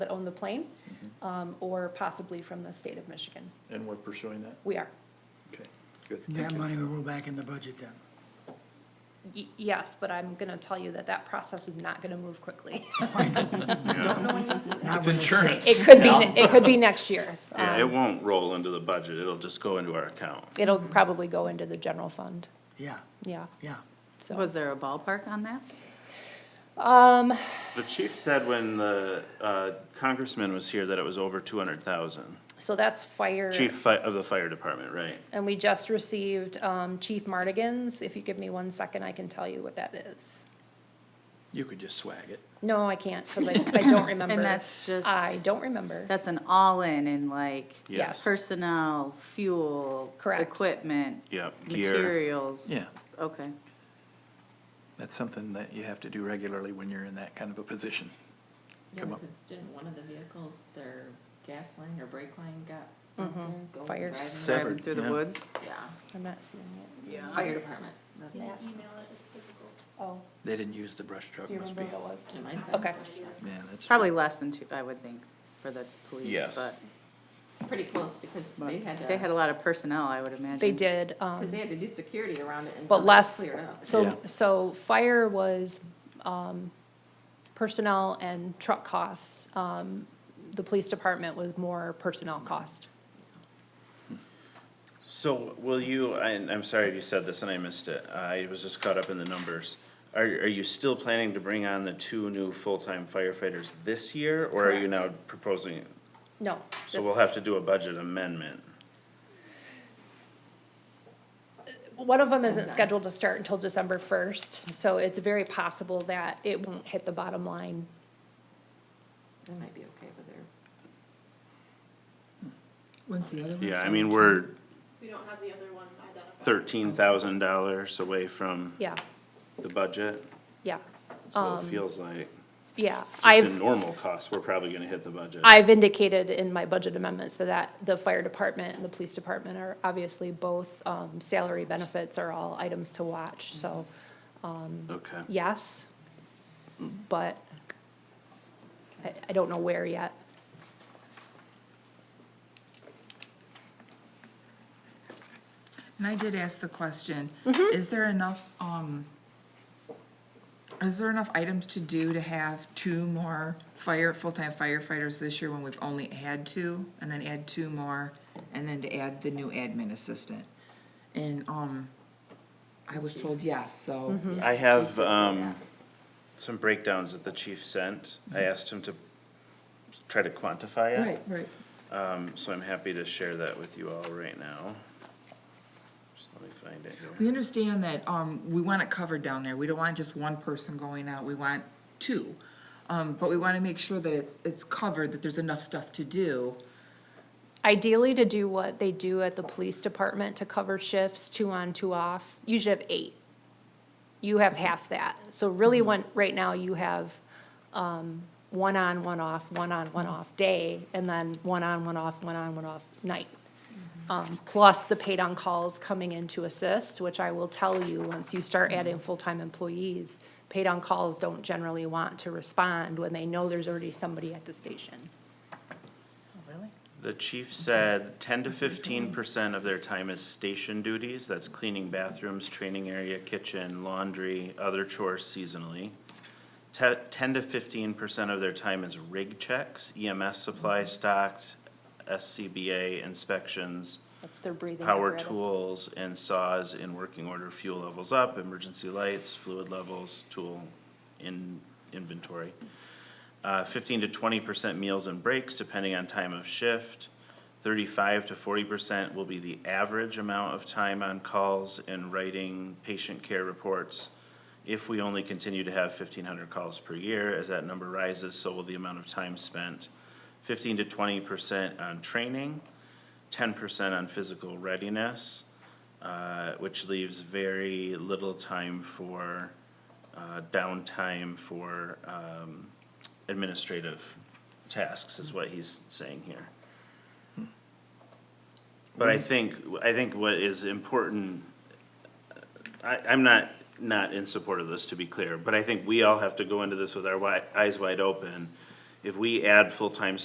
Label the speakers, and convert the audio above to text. Speaker 1: that own the plane, um, or possibly from the state of Michigan.
Speaker 2: And we're pursuing that?
Speaker 1: We are.
Speaker 2: Okay, good.
Speaker 3: And
Speaker 2: Thank
Speaker 3: That
Speaker 2: you.
Speaker 3: money will roll back in the budget then.
Speaker 1: Y- yes, but I'm gonna tell you that that process is not gonna move quickly.
Speaker 3: Not
Speaker 2: It's
Speaker 3: when the state-
Speaker 2: insurance.
Speaker 1: It could be, it could be next year.
Speaker 4: Yeah,
Speaker 1: Um,
Speaker 4: it won't roll into the budget, it'll just go into our account.
Speaker 1: It'll
Speaker 5: Mm-hmm.
Speaker 1: probably go into the general fund,
Speaker 3: Yeah,
Speaker 1: yeah,
Speaker 3: yeah.
Speaker 1: so.
Speaker 5: Was there a ballpark on that?
Speaker 1: Um,
Speaker 4: The chief said when the uh, congressman was here that it was over two hundred thousand.
Speaker 1: so that's fire.
Speaker 4: Chief fi- of the fire department, right?
Speaker 1: And we just received, um, Chief Mardigan's. If you give me one second, I can tell you what that is.
Speaker 2: You could just swag it.
Speaker 1: No, I can't, cause I, I don't remember.
Speaker 5: that's just-
Speaker 1: I don't remember.
Speaker 5: That's an all-in in like
Speaker 1: Yes.
Speaker 5: personnel, fuel,
Speaker 1: Correct.
Speaker 5: equipment,
Speaker 4: Yep, gear,
Speaker 5: materials.
Speaker 2: Yeah,
Speaker 5: Okay.
Speaker 2: that's something that you have to do regularly when you're in that kind of a position.
Speaker 6: Yeah,
Speaker 2: Come up.
Speaker 6: because didn't one of the vehicles, their gas line or brake line got out there, go
Speaker 1: Mm-hmm. Fire.
Speaker 2: Seven.
Speaker 6: driving?
Speaker 5: Driving
Speaker 2: Severed,
Speaker 5: through the
Speaker 2: yeah.
Speaker 5: woods.
Speaker 6: Yeah,
Speaker 1: I'm not seeing it.
Speaker 6: fire department, that's
Speaker 1: Yeah.
Speaker 6: it.
Speaker 1: Oh,
Speaker 2: They didn't use the brush truck,
Speaker 1: do you
Speaker 2: must
Speaker 1: remember
Speaker 2: be.
Speaker 1: what it was?
Speaker 6: It might have been
Speaker 1: Okay.
Speaker 6: pushed up.
Speaker 2: Yeah, that's.
Speaker 5: Probably less than two, I would think, for the police,
Speaker 4: Yes.
Speaker 5: but
Speaker 6: Pretty close, because they had
Speaker 5: they had
Speaker 6: to,
Speaker 5: a lot of personnel, I would imagine.
Speaker 1: They did, um,
Speaker 6: because they had to do security around it until
Speaker 1: but
Speaker 6: it was
Speaker 1: less,
Speaker 6: cleared up.
Speaker 2: Yeah.
Speaker 1: so, so fire was, um, personnel and truck costs. Um, the police department was more personnel cost.
Speaker 4: so will you, and I'm sorry if you said this and I missed it, I was just caught up in the numbers. Are, are you still planning to bring on the two new full-time firefighters this year, or are you now
Speaker 1: Correct.
Speaker 4: proposing?
Speaker 1: No.
Speaker 4: So
Speaker 1: this-
Speaker 4: we'll have to do a budget amendment.
Speaker 1: One of them isn't scheduled to start until December first, so it's very possible that it won't hit the bottom line.
Speaker 6: They might be okay with their
Speaker 7: When's the other one?
Speaker 4: Yeah, I
Speaker 7: start?
Speaker 4: mean, we're
Speaker 8: We don't have the other one identified.
Speaker 4: thirteen thousand dollars away from
Speaker 1: Yeah, Um,
Speaker 4: the budget,
Speaker 1: yeah,
Speaker 4: so it feels like.
Speaker 1: yeah.
Speaker 4: Just
Speaker 1: I've.
Speaker 4: in normal costs, we're probably gonna hit the budget.
Speaker 1: I've indicated in my budget amendments so that the fire department and the police department are obviously both, um, salary benefits are all items to watch, so
Speaker 4: Okay,
Speaker 1: yes. But I, I don't know where yet.
Speaker 7: And I did ask the question, is there enough, um, is there enough items to do to have two more fire, full-time firefighters this year when we've only had two? And then add two more, and then to add the new admin assistant? And, um, I was told yes, so.
Speaker 4: I have, um, some breakdowns that the chief sent, I asked him to try to quantify it.
Speaker 7: Right, right.
Speaker 4: Um, so I'm happy to share that with you all right now. Just let me find it
Speaker 7: We
Speaker 4: here.
Speaker 7: understand that, um, we want it covered down there, we don't want just one person going out, we want two. Um, but we wanna make sure that it's, it's covered, that there's enough stuff to do.
Speaker 1: Ideally to do what they do at the police department to cover shifts, two on, two off, you should have eight. You have half that, so really when, right now you have, um, one on, one off, one on, one off day, and then one on, one off, one on, one off night. Um, plus the paid on calls coming in to assist, which I will tell you, once you start adding full-time employees, paid on calls don't generally want to respond when they know there's already somebody at the station.
Speaker 4: The chief said ten to fifteen percent of their time is station duties, that's cleaning bathrooms, training area, kitchen, laundry, other chores seasonally. Te- Ten to fifteen percent of their time is rig checks, E EMS supply stock, SCBA inspections,
Speaker 1: That's their breathing
Speaker 4: power
Speaker 1: apparatus.
Speaker 4: tools and saws in working order, fuel levels up, emergency lights, fluid levels, tool in inventory. Uh, fifteen to twenty percent meals and breaks depending on time of shift. Thirty-five to forty percent will be the average amount of time on calls and writing patient care reports. If we only continue to have fifteen hundred calls per year, as that number rises, so will the amount of time spent. Fifteen to twenty percent on training, ten percent on physical readiness, uh, which leaves very little time for, uh, downtime for, um, administrative tasks is what he's saying here. But I think, I think what is important, I, I'm not, not in support of this, to be clear, but I think we all have to go into this with our wi- eyes wide open If we add full-time